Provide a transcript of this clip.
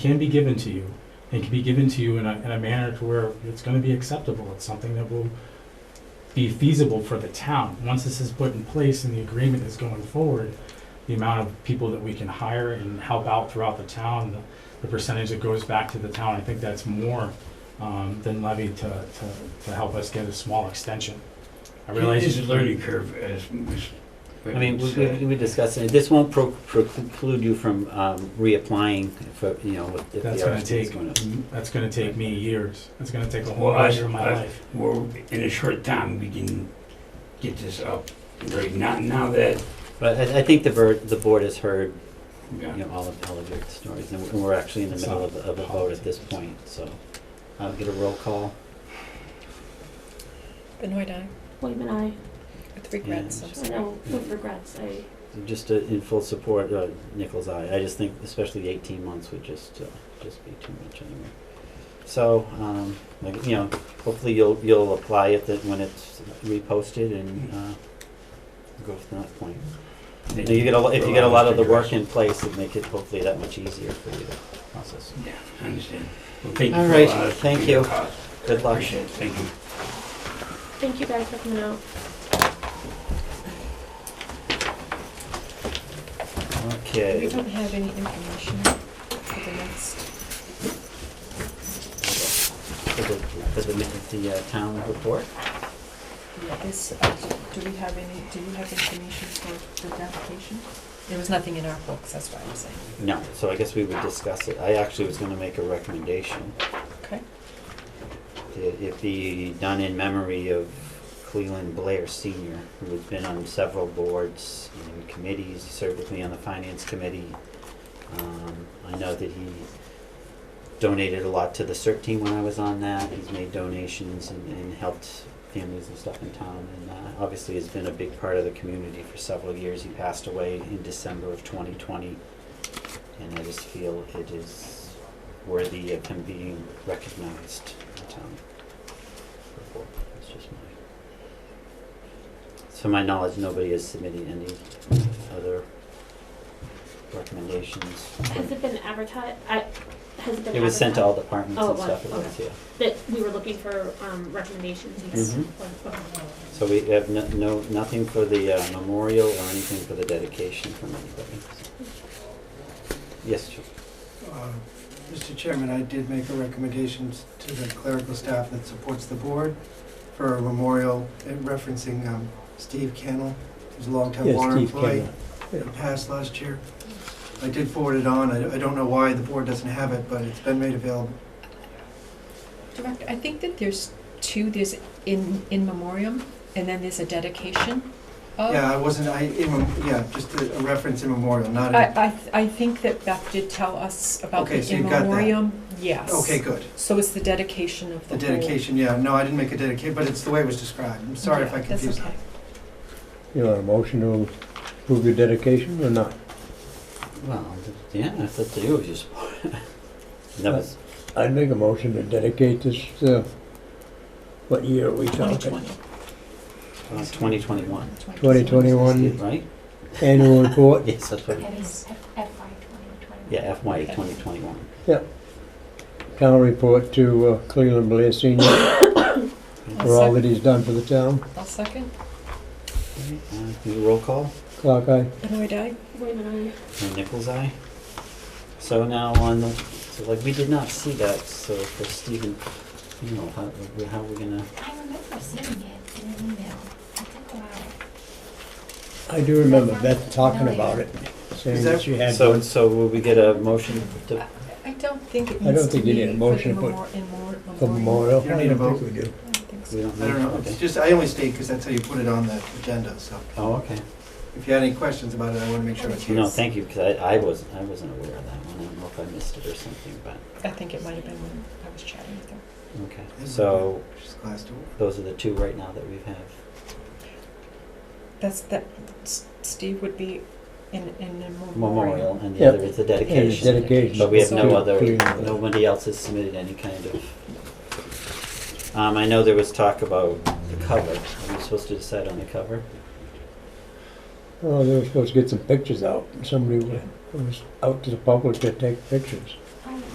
can be given to you, and can be given to you in a, in a manner to where it's gonna be acceptable, it's something that will be feasible for the town. Once this is put in place and the agreement is going forward, the amount of people that we can hire and help out throughout the town, the- the percentage that goes back to the town, I think that's more um, than levy to, to, to help us get a small extension. I realize. It's a learning curve, as Ms. I mean, we, Britton we, said. we discussed it. This won't pro- preclude you from, um, reapplying for, you know, if- if the That's gonna RFP is take, going to. that's gonna take me years. That's gonna take a Well, whole I- year of my I- life. Well, in a short time, we can get this up, right, not now that, But I, I think the ver, the board has heard, you Yeah. know, all of, all of your stories, and we're- and we're actually in the It's middle not of, of a vote at this point, so. I'll get a roll call. Benoit I, Whitman, I, with regrets, I'm And- I sorry. know with regrets, I, Just uh, in full support, uh, Nichols' eye. I just think especially the eighteen months would just, uh, just be too much anyway. So, um, like, you know, hopefully you'll, you'll apply it that when it's reposted and, uh, go from that point. If you get a, lo- if you get a lot of the work in place, it'd make it hopefully that much easier for you to process. Yeah, I understand. Well, thank you. All for right, allowing us to thank be your you. cause. Good luck. Appreciate it, thank you. thank you guys for coming out. We Okay. don't have any information for the next, For the, for the, the uh, town report. yeah, this, uh, do we have any, do you have information for the application? There was nothing in our books, that's why I'm saying. No, so I guess we would discuss it. I actually was gonna make a recommendation. Okay. It it be done in memory of Cleveland Blair Senior, who had been on several boards and committees, He served with me on the finance committee. Um, I know that he donated a lot to the CERT team when I was on that, he's made donations and, and helped families and stuff in town. And uh, obviously has been a big part of the community for several years, he passed away in December of twenty twenty. And I just feel it is worthy of him being recognized in town. That's just my. To my knowledge, nobody has submitted any other recommendations. Has it been advertised, I, has it been advertised? It was sent to all departments Oh, and it was, stuff, it okay. was, yeah. That we were looking for, um, recommendations, yes. Mhm. Or- okay. So we have no, no, nothing for the uh, memorial or anything for the dedication from anybody. so. Yes, Joe? Uh, Mr. Chairman, I did make a recommendation to the clerical staff that supports the board for a memorial referencing um, Steve Kennel, who's a longtime water employee. It passed last year. I did forward it on. I I don't know why the board doesn't have it, but it's been made available. Director, I think that there's two, there's in, in memoriam, and then there's a dedication of. Yeah, I wasn't, I, in mem- yeah, just a a reference in memorial, not a, I, I, th- I think that Beth did tell us about the Okay, so in you've got that. memoriam, yes. okay, good. So it's the dedication of the The whole. dedication, yeah, no, I didn't make a dedication, but it's the way it was described. I'm sorry if Yeah, I confused. That's okay. You want a motion to approve your dedication or not? Well, yeah, that's up to you, if you support. That was uh, I'd make a motion to dedicate this, uh, what year are we talking? 2020. uh, 2021, 2021 right? annual report. Yes, that's what it is. Yeah, FY Okay. 2021. Town report to uh, Cleveland Blair Senior I'll for all sec- that he's done for the town. I'll second. Uh, do a roll call, Clark, aye. Benoit aye? Whitman, and Nichols' eye. So now on, the- so like, we did not see that, so for Stephen, you know, how, how are we gonna, I remember seeing it in an email. I took a while. I do remember Beth talking about it, saying Is that that- she had so, one. so will we get a motion to, I don't think it I don't needs to think you be need a for the motion to put memor- in more- For memorial. memorial. You don't need a vote. I think I we do. don't think so. we don't I don't know, it's okay. just, I only state because that's how you put it on the agenda, so. Oh, okay. If you had any questions about it, I want to make sure it's here. No, thank you, because I, I wasn't, I wasn't aware of that one. I don't know if I missed it or something, but, I think it might have been when I was chatting with her. okay. Mm-hmm. So Just glass door. those are the two right now that we have. That's, that, S- Steve would be in, in a memorial. Memorial, and the Yep. other is the And dedication. dedication. But we have no to other, Cleveland. nobody else has submitted any kind of. Um, I know there was talk about the cover. Are we supposed to decide on the cover? Oh, they were supposed to get some pictures out. Somebody wa- was out to the public to take pictures.